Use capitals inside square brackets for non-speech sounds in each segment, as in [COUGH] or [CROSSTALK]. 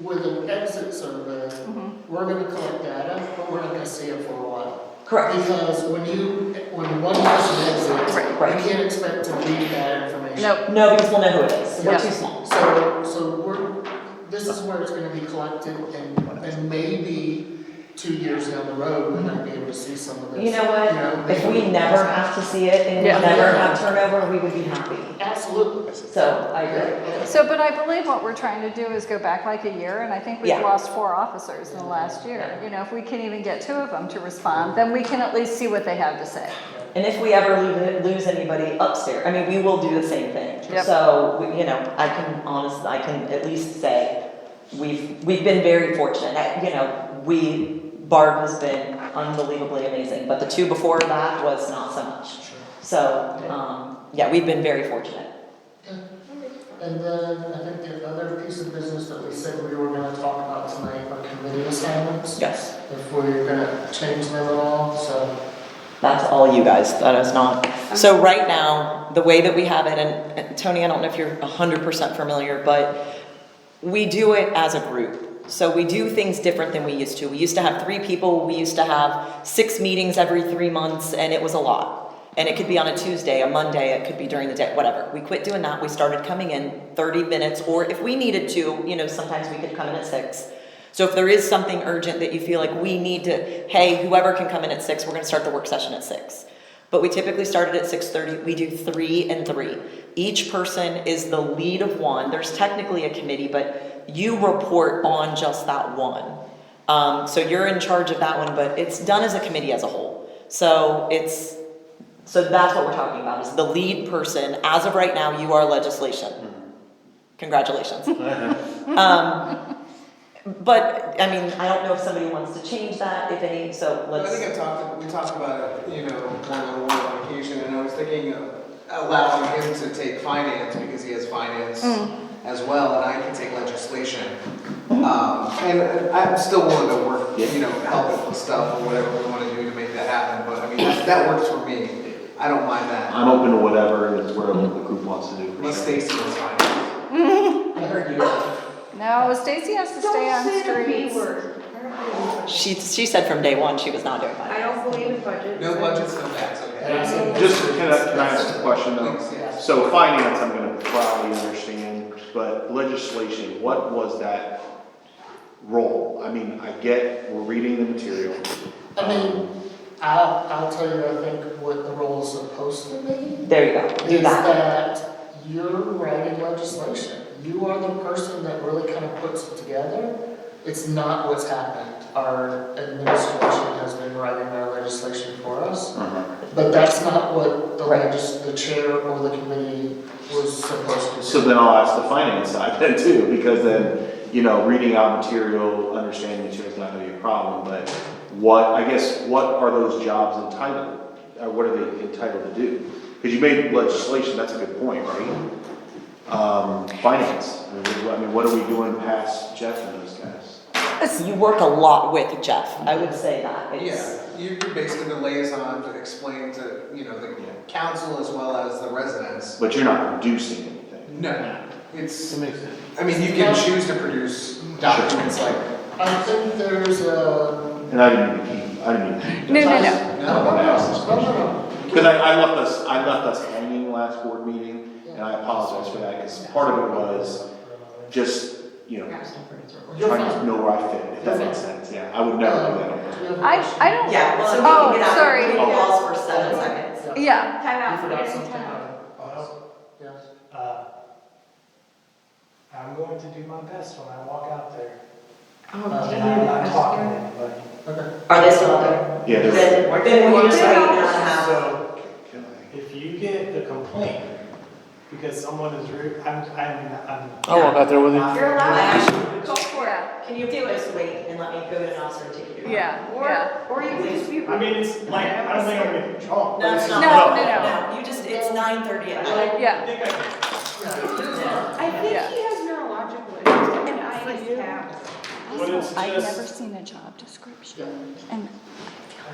with an exit survey, Mm-hmm. we're gonna collect data, but we're not gonna see it for a while. Correct. Because when you, when one person exits, Right, right. you can't expect to read that information. Nope. No, because we'll know who it is. We're Yeah. too small. So, so we're, this is where it's gonna be collected and, and maybe two years down the road, we might be able to see some of this. You know what? know, If we never have to see it and we Yeah. never have turnover, we would be happy. Absolutely. So I agree. Yeah. So, but I believe what we're trying to do is go back like a year, and I think we've Yeah. lost four officers in the last year. You know, if we can even get two of them to respond, then we can at least see what they have to say. And if we ever lose, lose anybody upstairs, I mean, we will do the same thing. Yep. So, we- you know, I can honestly, I can at least say, we've, we've been very fortunate. I- You know, we, Barb has been unbelievably amazing, but the two before that was not so much. Sure. So, um, yeah, we've been very fortunate. And then I think the other piece of business that we said we were gonna talk about tonight are committee assignments, Yes. if we're gonna change them at all, so. That's all you guys, that is not. So right now, the way that we have it, and and Tony, I don't know if you're hundred percent familiar, but we do it as a group. So we do things different than we used to. We used to have three people, we used to have six meetings every three months, and it was a lot. And it could be on a Tuesday, a Monday, it could be during the day, whatever. We quit doing that, we started coming in thirty minutes, or if we needed to, you know, sometimes we could come in at six. So if there is something urgent that you feel like we need to, hey, whoever can come in at six, we're gonna start the work session at six. But we typically started at six thirty, we do three and three. Each person is the lead of one, there's technically a committee, but you report on just that one. Um, so you're in charge of that one, but it's done as a committee as a whole. So it's, so that's what we're talking about, is the lead person, as of right now, you are legislation. Congratulations. Um, but, I mean, I don't know if somebody wants to change that, if any, so I let's, think I talked, we talked about it, you know, one-on-one on occasion, and I was thinking of allowing him to take finance, because he has finance as well, and I can take legislation. Um, and I'm still willing to work, you know, help with stuff or whatever we wanna do to make that happen, but I mean, that that works for me. I don't mind that, I'm open to whatever is where the group wants to do. unless Stacy was finance. I heard you. No, Stacy has to stay on streets. She, she said from day one she was not doing that. I don't believe in budgets. No budgets, no tax, okay? Just, can I, can I ask a question though? Thanks, yes. So finance, I'm gonna probably understand, but legislation, what was that role? I mean, I get, we're reading the material. I mean, I'll, I'll tell you, I think what the role is supposed to be There you go, do is that. that you're writing legislation. You are the person that really kind of puts it together. It's not what's happened. Our administration has been writing our legislation for us. Uh-huh. But that's not what the Right. legis, the chair or the committee was supposed to do. So then I'll ask the finance side [LAUGHS] then too, because then, you know, reading out material, understanding material is not gonna be a problem, but what, I guess, what are those jobs entitled? Or what are they entitled to do? Cause you made legislation, that's a good point, right? Um, finance, I mean, what- I mean, what are we doing past Jeff and those guys? You work a lot with Jeff, I would say that. It's- Yeah, you're you're basically the liaison to explain to, you know, the council as well as the residents. But you're not producing anything. No, it's, makes sense. I mean, you can choose to produce documents like, I think there's a. And I didn't even keep, I didn't even. No, no, no. I no, wanna ask this No, no, question. no, no. Because I, I left us, I left us hanging last board meeting, and I apologize for that, because part of it was just, you know, You're trying to fine. know where I fit, if that makes sense, yeah, I would never do that. on purpose. I, I don't. Yeah, well, Oh, we can get out sorry. of calls for seven seconds. Yeah. Yeah, Time You out for forgot getting something. time. Well, Yes. uh, I'm going to do my best when I walk out there. Oh, Uh, And dear, I'm I not talking to scared. anybody. Okay. Are they still there? Yeah, there's, Then, then we just wait and have. So if you get a complaint because someone is rude, I'm, I'm, I'm. Oh, I'll bet there with you. You're allowed, go for it. yeah, Can you just wait and let me go to an officer and take you? yeah, yeah. Or, or you can just be. I mean, it's like, I don't think I'm gonna control. No, it's not. No, no, You just, it's nine thirty at night. Yeah. I think I can. I think he Yeah. has neurological issues and I have. But it's I've just- never seen a job description, Yeah, and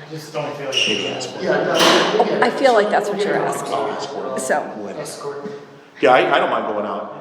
I just don't feel like. Yeah, no, we get it. I feel like that's what you're asking. We'll get it. so. Escort. yeah, I, I don't mind going out